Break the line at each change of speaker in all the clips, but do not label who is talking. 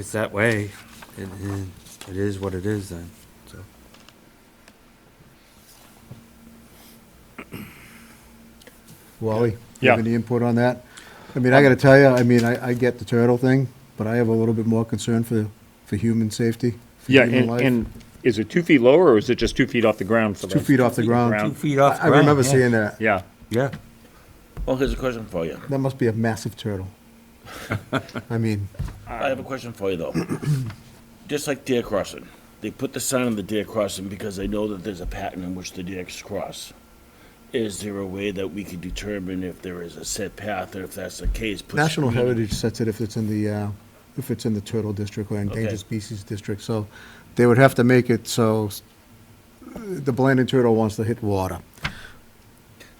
it's that way, it, it- it is what it is then, so.
Wally? you
Yeah.
Have any input on that? I mean, I gotta tell you, I mean, I, I get the turtle thing, but I have a little bit more concern for, for human safety. for
Yeah,
human
and,
life.
and is it two feet lower or is it just two feet off the ground for
Two
that?
feet off the
Two
ground.
feet off
I I remember
ground, yeah.
seeing that.
Yeah,
Yeah,
Well, here's a question for you.
That must be a massive turtle. I mean,
I have a question for you, though. Just like deer crossing, they put the sign on the deer crossing because they know that there's a pattern in which the deer cross. Is there a way that we can determine if there is a set path, or if that's the case? put
National
screening-
Heritage sets it if it's in the, uh, if it's in the turtle district or endangered
Okay.
species district, so they would have to make it so s- the blanding turtle wants to hit water.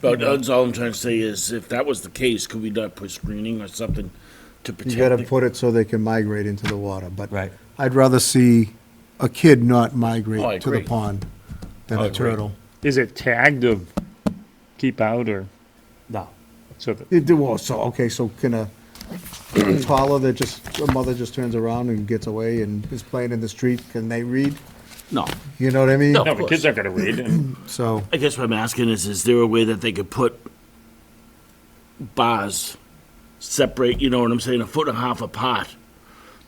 But that's all I'm trying to say is, if that was the case, could we not put screening or something to protect?
You gotta
the-
put it so they can migrate into the water, but.
Right.
I'd rather see a kid not
Oh, I
migrate to the
agree.
pond than
I
a
agree.
turtle.
is it tagged of keep out or
no,
so that,
It, well, so, okay, so can a toddler that just, a mother just turns around and gets away and is playing in the street, can they read?
No.
You know what I mean?
No.
no, the kids aren't gonna read and
So,
I guess what I'm asking is, is there a way that they could put bars separate, you know what I'm saying, a foot and a half apart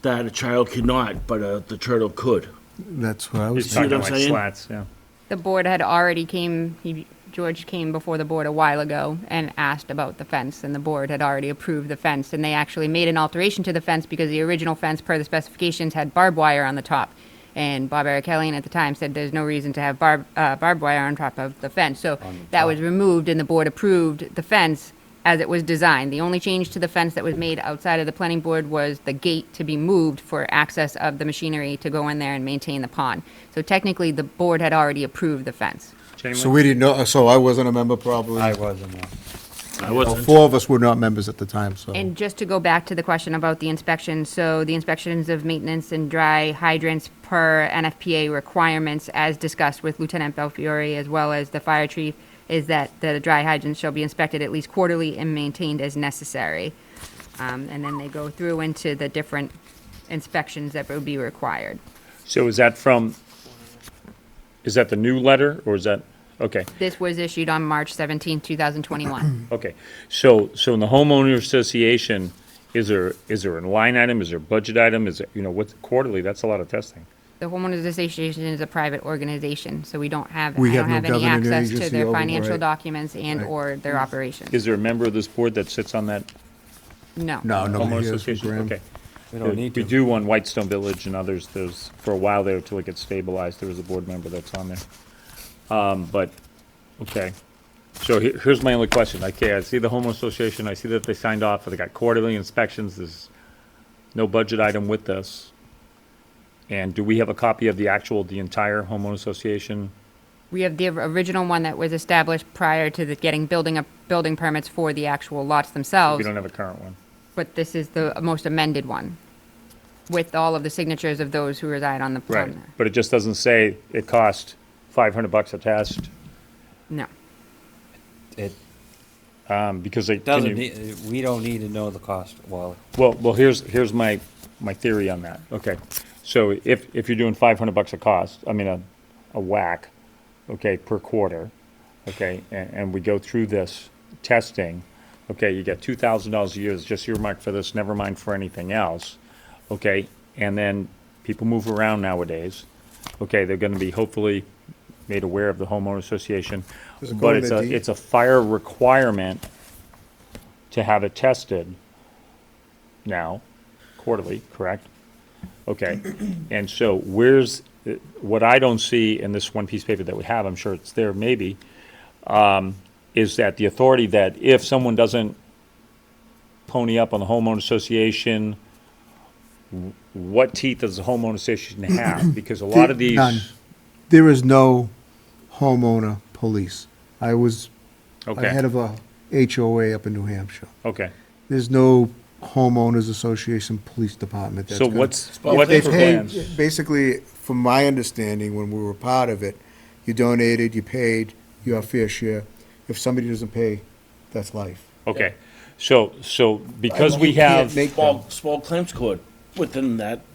that a child cannot, but uh, the turtle could?
that's what I was
it's
see what
talking
I'm
like
saying?
slats, yeah.
The board had already came, he, George came before the board a while ago and asked about the fence, and the board had already approved the fence, and they actually made an alteration to the fence because the original fence, per the specifications, had barbed wire on the top. And Bob Ericellian at the time said there's no reason to have barb, uh, barbed wire on top of the fence, so that was removed, and the board approved the fence as it was designed. The only change to the fence that was made outside of the planning board was the gate to be moved for access of the machinery to go in there and maintain the pond. So technically, the board had already approved the fence.
Chain
So
link?
we didn't know, so I wasn't a member probably.
I wasn't, uh,
I
Well,
wasn't,
Four of us were not members at the time, so.
And just to go back to the question about the inspections, so the inspections of maintenance and dry hydrants per NFPA requirements, as discussed with Lieutenant Belfiore as well as the fire chief, is that the dry hydrants shall be inspected at least quarterly and maintained as necessary. Um, and then they go through into the different inspections that would be required.
So is that from, is that the new letter or is that, okay,
This was issued on March 17, 2021.
okay. So, so in the homeowner association, is there, is there a line item, is there a budget item, is it, you know, what's quarterly, that's a lot of testing.
The homeowners association is a private organization, so we don't have,
We
I
have
don't
no
have any
governing
access to
agency
their
over,
financial
right.
documents and
Right.
or their operations.
Is there a member of this board that sits on that
No.
No, nobody
homeowner
here is from
association?
Graham.
Okay.
we don't need
We
to.
do on Whitestone Village and others, there's, for a while there, till it gets stabilized, there was a board member that's on there. Um, but, okay. So he- here's my only question, okay, I see the homeowner association, I see that they signed off, they got quarterly inspections, there's no budget item with this. And do we have a copy of the actual, the entire homeowner association?
We have the original one that was established prior to the getting building up, building permits for the actual lots
We
themselves,
don't have a current one.
but this is the most amended one with all of the signatures of those who reside on the
Right,
plan.
but it just doesn't say it cost five hundred bucks a test,
No.
It
um, because they. can
doesn't,
you-
need- we don't need to know the cost, Wally.
Well, well, here's, here's my, my theory on that. Okay. So if, if you're doing five hundred bucks a cost, I mean, a, a whack, okay, per quarter, okay, and, and we go through this testing, okay, you get two thousand dollars a year, is just earmarked for this, never mind for anything else, okay? And then people move around nowadays, okay, they're gonna be hopefully made aware of the homeowner association.
Does it go
But
in
it's
the
a,
deed?
it's a fire requirement to have it tested now, quarterly, correct? Okay, and so where's, what I don't see in this one piece of paper that we have, I'm sure it's there maybe, um, is that the authority that if someone doesn't pony up on the homeowner association, w- what teeth does the homeowner association have? Because a lot of these.
None. There is no homeowner police. I was a head
Okay,
of a HOA up in New Hampshire.
okay.
There's no homeowners association police department. that's
So
gonna-
what's,
Well,
what's
They
the
if
pay,
plans?
basically, from my understanding, when we were part of it, you donated, you paid your fair share. If somebody doesn't pay, that's life.
Okay, so, so because we
You can't
have.
make them.
small, small claims court within that